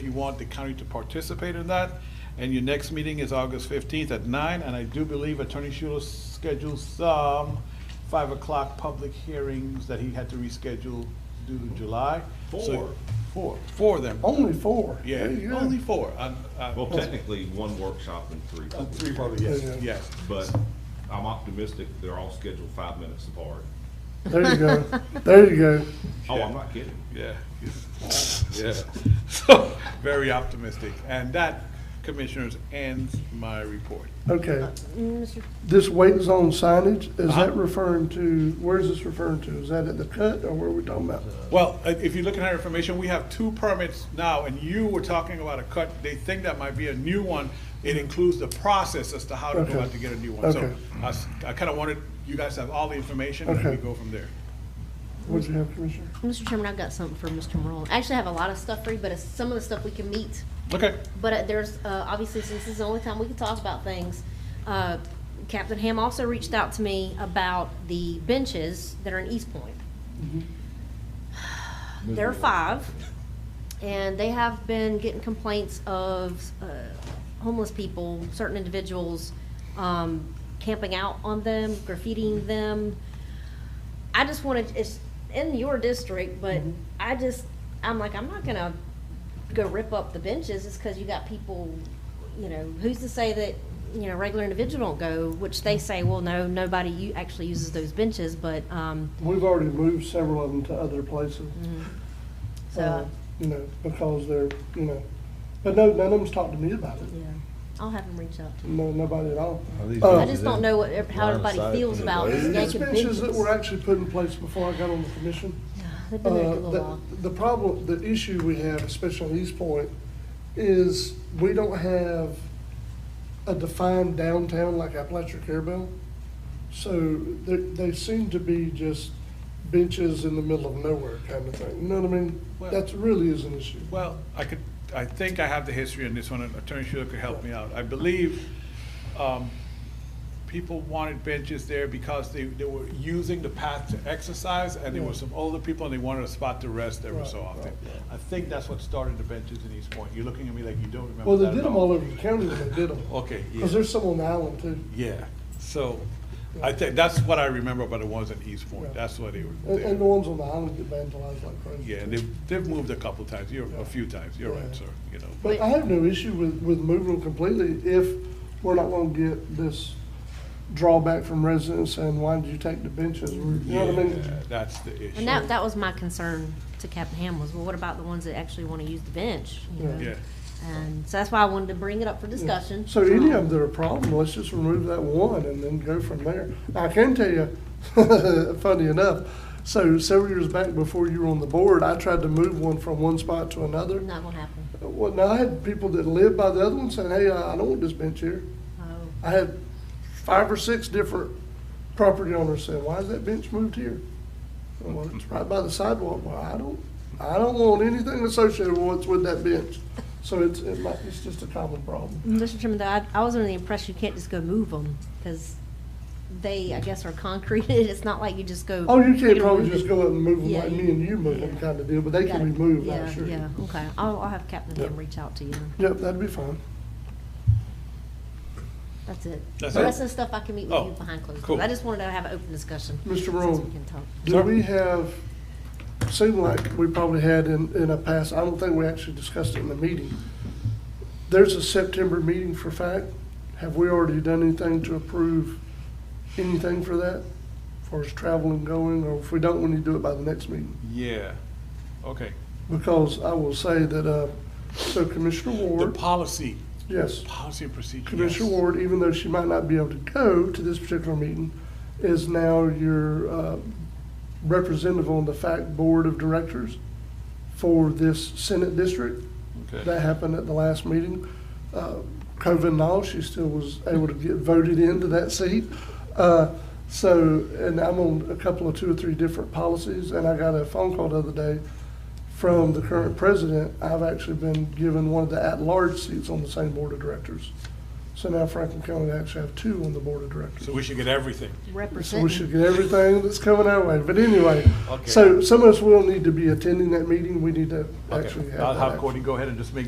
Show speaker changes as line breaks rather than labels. If you want the county to participate in that, and your next meeting is August fifteenth at nine, and I do believe Attorney Schuler scheduled some five o'clock public hearings that he had to reschedule due to July. So-
Four.
Four, Oh, four of them.
Only four?
Yeah,
Yeah.
only four. Uh, I- I-
Well, technically, one workshop and three.
Uh, Three
public
probably, yes,
Yeah.
yes.
But I'm optimistic they're all scheduled five minutes apart.
There you go. There you go.
Oh,
Yeah.
I'm not kidding.
Yeah, yeah. So, very optimistic. And that, Commissioners, ends my report.
Okay.
Mr.
This wait zone signage, is
Uh-huh.
that referring to, where is this referring to? Is that at the cut or where are we talking about?
Well, i- if you look at our information, we have two permits now, and you were talking about a cut. They think that might be a new one. It includes the process as to how to go
Mm-hmm. Okay.
out to get a new one. So
Okay.
I s- I kind of wanted, you guys to have all the information, and we
Okay.
go from there.
What'd you have, Commissioner?
Mr. Chairman, I've got something for Mr. Morone. I Actually, I have a lot of stuff for you, but it's some of the stuff we can meet.
Okay,
But uh, there's, uh, obviously, since this is the only time we can talk about things, uh, Captain Ham also reached out to me about the benches that are in East Point. There are five, and they have been getting complaints of uh, homeless people, certain individuals um, camping out on them, graffitiing them. I just wanted, it's in your district, but I just, I'm like, I'm not gonna go rip up the benches just because you got people, you know, who's to say that, you know, regular individual don't go, which they say, well, no, nobody u- actually uses those benches, but, um, mm.
We've already moved several of them to other places. uh,
Mm-hmm. so,
You know, because they're, you know, but no, none of them's talked to me about it.
yeah, I'll have them reach out to you.
No, nobody at all.
Are these
Uh,
I
benches
just don't
in
know what, how
line of
everybody
sight
feels
from the
about
road?
these
These
naked
benches that
benches.
were actually put in place before I got on the commission,
Yeah, They've been there
Uh,
for a little
The
while.
the problem, the issue we have, especially on East Point, is we don't have a defined downtown like Appalachia Carabel. So they, they seem to be just benches in the middle of nowhere kind of thing. You know what I mean?
Well-
That really is an issue.
well, I could, I think I have the history on this one, and Attorney Schuler could help me out. I believe um, people wanted benches there because they, they were using the path to exercise, and there were some older people, and they wanted a spot to rest every so
Right, right,
often.
right.
I think that's what started the benches in East Point. You're looking at me like you don't remember
Well, they
that at
did them all over the county when they did them.
Okay, yeah.
Because there's some on the island too.
Yeah, so, I think, that's what I remember about the ones in East Point,
Yeah.
that's what they were
And, and the
there.
ones on the island get vandalized like crazy.
Yeah,
too.
and they've, they've moved a couple times, you're, a few times, you're right,
Yeah.
sir, you know.
But I have no issue with, with moving them completely if we're not gonna get this drawback from residents saying, why did you take the benches? You know what I
Yeah,
mean?
That's the issue.
And that, that was my concern to Captain Ham was, well, what about the ones that actually want to use the bench? you know?
Yeah,
And so that's why I wanted to bring it up for discussion.
So any of them that are a problem, let's just remove that one and then go from there. I can tell you, funny enough, so several years back before you were on the board, I tried to move one from one spot to another.
Not gonna happen.
Well, now I had people that lived by the other one saying, hey, I I don't want this bench here.
Oh.
I had five or six different property owners saying, why is that bench moved here? Well, it's right by the sidewalk. Well, I don't, I don't want anything associated with what's with that bench. So it's, it might, it's just a common problem.
Mm, Mr. Chairman, though, I, I was under the impression you can't just go move them, because they, I guess, are concreted, it's not like you just go.
Oh, you can't
don't
probably
move
just
it.
go up and move them
Yeah,
like me and you move them
yeah.
kind of deal, but they
Got
can
it.
be moved,
Yeah,
I'm sure.
Yeah,
Yep,
okay, I'll, I'll have Captain Ham
Yep.
reach out to you,
that'd be fine.
that's it.
That's
The
it?
rest of the stuff I can meet with
Oh,
you behind closed
cool.
doors, I just wanted to have an open discussion.
Mr.
since
Rome.
we can talk.
Do we have, seemed like we probably had in, in a past, I don't think we actually discussed it in the meeting. There's a September meeting for fact. Have we already done anything to approve anything for that? As far as travel and going, or if we don't, we need to do it by the next meeting.
yeah, okay.
Because I will say that, uh, so Commissioner
The
Ward,
policy,
yes.
policy and procedure.
Commissioner
yes.
Ward, even though she might not be able to go to this particular meeting, is now your uh, representative on the FACT Board of Directors for this Senate district.
Okay.
That happened at the last meeting. Uh, COVID and all, she still was able to get voted into that seat. Uh, So, and I'm on a couple of two or three different policies, and I got a phone call the other day from the current president. I've actually been given one of the at-large seats on the same board of directors. So now Franklin County actually have two on the board of directors.
So we should get everything.
So we should
Representing,
get everything that's coming our way, but anyway,
Okay.
so some of us will need to be attending that meeting, we need to
Okay.
actually have that.
I'll have
action.
Courtney go ahead and just make